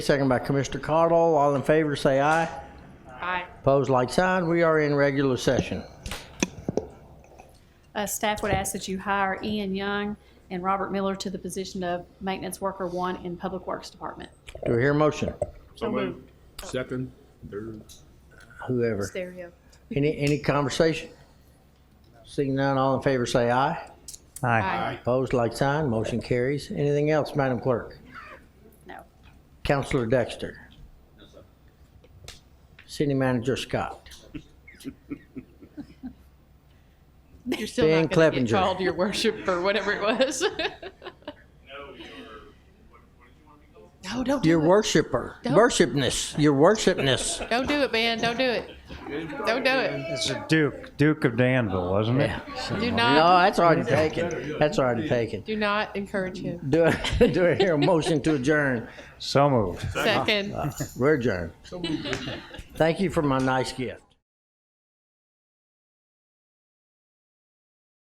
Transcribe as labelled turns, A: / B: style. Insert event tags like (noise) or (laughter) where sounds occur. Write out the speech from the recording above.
A: Second by Commissioner Cardall. All in favor, say aye.
B: Aye.
A: Opposed, like sign. We are in regular session.
B: Uh, Staff would ask that you hire Ian Young and Robert Miller to the position of Maintenance Worker One in Public Works Department.
A: Do we hear a motion?
C: So moved. Second, third.
A: Whoever.
B: Stereo.
A: Any, any conversation? Seeing none, all in favor, say aye.
B: Aye.
A: Opposed, like sign. Motion carries. Anything else, Madam Clerk?
B: No.
A: Counselor Dexter. City Manager Scott.
B: You're still
A: Dan
B: not going to get
A: Clevenger.
B: called, Your Worship, or whatever it was. No, don't
A: Your
B: do it.
A: worshiper, worshipness, your worshipness.
B: Don't do it, man. Don't do it. Don't do it.
D: It's a Duke, Duke of Danville, wasn't it?
B: Do
A: No,
B: not,
A: that's already taken. That's already taken.
B: do not encourage him.
A: Do, I- (laughs) do I hear a motion to adjourn?
D: So moved.
B: Second.
A: We're adjourned. Thank you for my nice gift.